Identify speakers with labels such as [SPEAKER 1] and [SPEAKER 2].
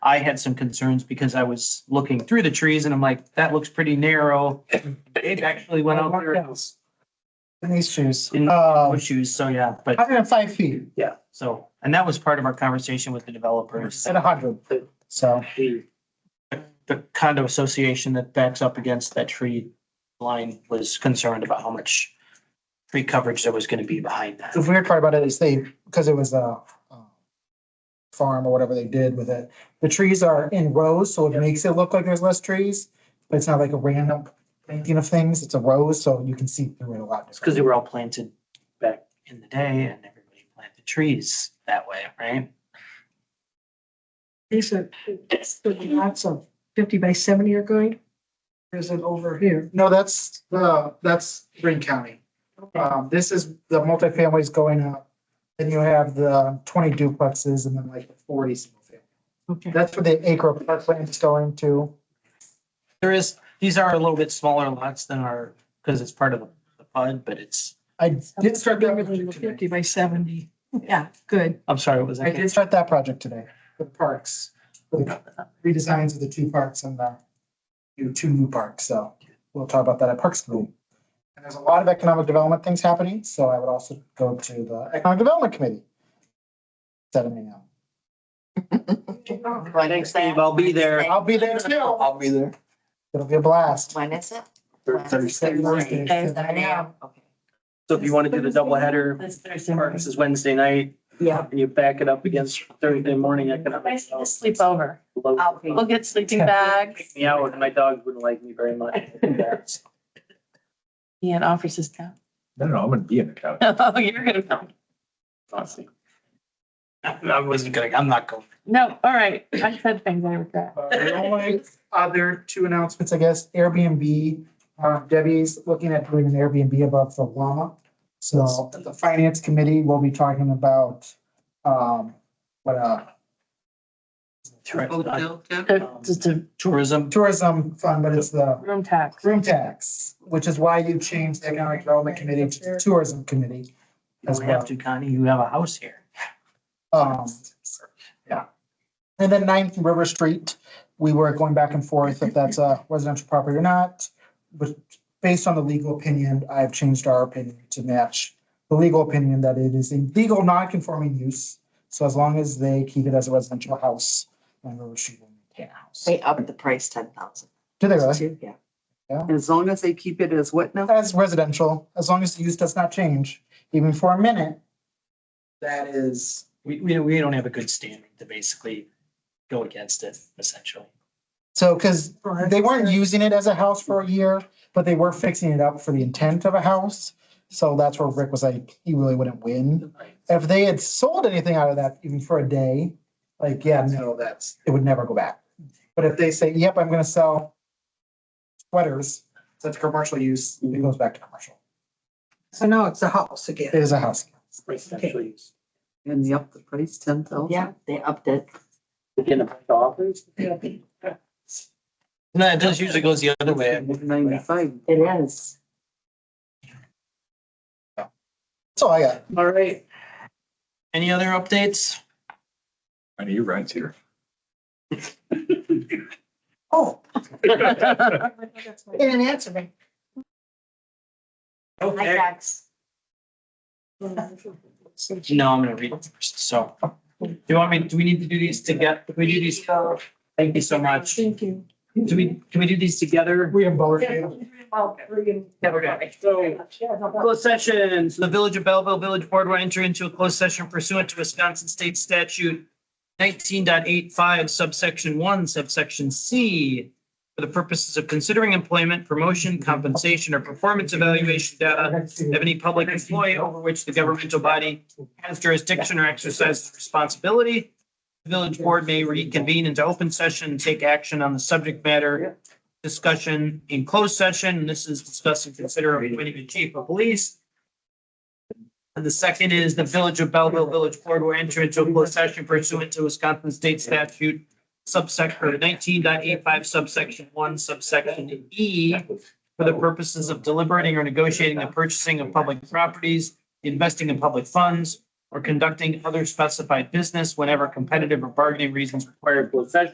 [SPEAKER 1] I had some concerns because I was looking through the trees and I'm like, that looks pretty narrow. It actually went out there in
[SPEAKER 2] In these shoes.
[SPEAKER 1] In-
[SPEAKER 2] Uh,
[SPEAKER 1] issues, so yeah, but
[SPEAKER 2] hundred and five feet
[SPEAKER 1] so, and that was part of our conversation with the developers.
[SPEAKER 2] at a hundred, so.
[SPEAKER 1] The condo association that backs up against that tree line was concerned about how much tree coverage there was gonna be behind that.
[SPEAKER 2] The weird part about it is they, because it was a uh, farm or whatever they did with it, the trees are in rows, so it makes it look like there's less trees. But it's not like a random painting of things, it's a row, so you can see through it a lot.
[SPEAKER 1] It's because they were all planted back in the day and everybody planted trees that way, right?
[SPEAKER 3] These are, it's the lots of fifty by seventy are going. Or is it over here?
[SPEAKER 2] No, that's, uh, that's Green County. Um, this is the multifamilies going up. Then you have the twenty duplexes and then like the forty single family.
[SPEAKER 3] Okay.
[SPEAKER 2] That's where the acre park land is going to.
[SPEAKER 1] There is, these are a little bit smaller lots than our, because it's part of the the PUD, but it's,
[SPEAKER 2] I did start that project
[SPEAKER 3] Fifty
[SPEAKER 2] today.
[SPEAKER 3] by seventy. Yeah, good.
[SPEAKER 1] I'm sorry, what was
[SPEAKER 2] I
[SPEAKER 1] that?
[SPEAKER 2] did start that project today, the parks, the redesigns of the two parks and the new, two new parks, so we'll talk about that at Parks Committee. And there's a lot of economic development things happening, so I would also go to the Economic Development Committee. Setting me up.
[SPEAKER 4] When
[SPEAKER 1] Thanks,
[SPEAKER 4] is
[SPEAKER 1] Steve.
[SPEAKER 4] that?
[SPEAKER 1] I'll be there.
[SPEAKER 2] I'll be there too.
[SPEAKER 5] I'll be there.
[SPEAKER 2] It'll be a blast.
[SPEAKER 4] When is it?
[SPEAKER 5] Thursday.
[SPEAKER 2] Thursday.
[SPEAKER 4] Seven AM. Okay.
[SPEAKER 1] So if you want to do the double header, Parks is Wednesday night,
[SPEAKER 4] Yeah.
[SPEAKER 1] and you back it up against Thursday morning economic.
[SPEAKER 4] Nice to sleep over. I'll we'll get sleeping
[SPEAKER 2] Yeah.
[SPEAKER 4] bags.
[SPEAKER 1] Kick Me out, and my dog wouldn't like me very much.
[SPEAKER 4] Ian offers his couch.
[SPEAKER 5] No, no, I'm gonna be in the couch.
[SPEAKER 4] Oh, you're gonna come.
[SPEAKER 1] Awesome. I wasn't gonna, I'm not going.
[SPEAKER 4] No, all right. I said things I regret.
[SPEAKER 2] Uh, The only other two announcements, I guess, Airbnb, uh, Debbie's looking at doing an Airbnb above the llama. So at the finance committee, we'll be talking about, um, what, uh,
[SPEAKER 4] To- to- to
[SPEAKER 1] Tourism,
[SPEAKER 2] tourism fund, but it's the
[SPEAKER 4] room tax.
[SPEAKER 2] room tax, which is why you changed the economic development committee to the tourism committee.
[SPEAKER 1] you don't have to, Connie, you have a house here.
[SPEAKER 2] Um, yeah. And then ninth River Street, we were going back and forth if that's a residential property or not. But based on the legal opinion, I've changed our opinion to match the legal opinion that it is a legal non-conforming use. So as long as they keep it as a residential house, then River Street will maintain a house.
[SPEAKER 4] They upped the price ten thousand.
[SPEAKER 2] Do they really?
[SPEAKER 4] Yeah.
[SPEAKER 6] As long as they keep it as what now?
[SPEAKER 2] As residential, as long as the use does not change, even for a minute, that is
[SPEAKER 1] We, we, we don't have a good standing to basically go against it essentially.
[SPEAKER 2] So, because they weren't using it as a house for a year, but they were fixing it up for the intent of a house. So that's where Rick was like, he really wouldn't win. If they had sold anything out of that even for a day, like, yeah, no, that's, it would never go back. But if they say, yep, I'm gonna sell sweaters, that's commercial use, it goes back to commercial.
[SPEAKER 3] So now it's a house
[SPEAKER 2] It
[SPEAKER 3] again.
[SPEAKER 2] is a house.
[SPEAKER 1] Residential use.
[SPEAKER 6] And you up the price ten thousand?
[SPEAKER 4] Yeah, they upped it.
[SPEAKER 1] Again, the offers. No, it does usually goes the other way.
[SPEAKER 6] Ninety-five.
[SPEAKER 4] It is.
[SPEAKER 2] That's all I got.
[SPEAKER 1] All right. Any other updates?
[SPEAKER 5] I need your rides here.
[SPEAKER 2] Oh,
[SPEAKER 3] They didn't answer me.
[SPEAKER 4] Hi,
[SPEAKER 1] Okay.
[SPEAKER 4] Jax.
[SPEAKER 1] No, I'm gonna read it first, so. Do you want me, do we need to do these together? Do we do these? Thank you so much. Do
[SPEAKER 3] Thank you.
[SPEAKER 1] we, can we do these together?
[SPEAKER 2] we have both. you.
[SPEAKER 1] Closed sessions. The Village of Belleville Village Board will enter into a closed session pursuant to Wisconsin State Statute 19.85 subsection one subsection C for the purposes of considering employment, promotion, compensation, or performance evaluation data of any public employee over which the governmental body has jurisdiction or exercises responsibility. The Village Board may reconvene into open session and take action on the subject matter discussion in closed session. This is discussing consider appointing a chief of police. And the second is the Village of Belleville Village Board will enter into a closed session pursuant to Wisconsin State Statute subsection nineteen point eight five subsection one subsection E for the purposes of deliberating or negotiating the purchasing of public properties, investing in public funds, or conducting other specified business whenever competitive or bargaining reasons require closed session.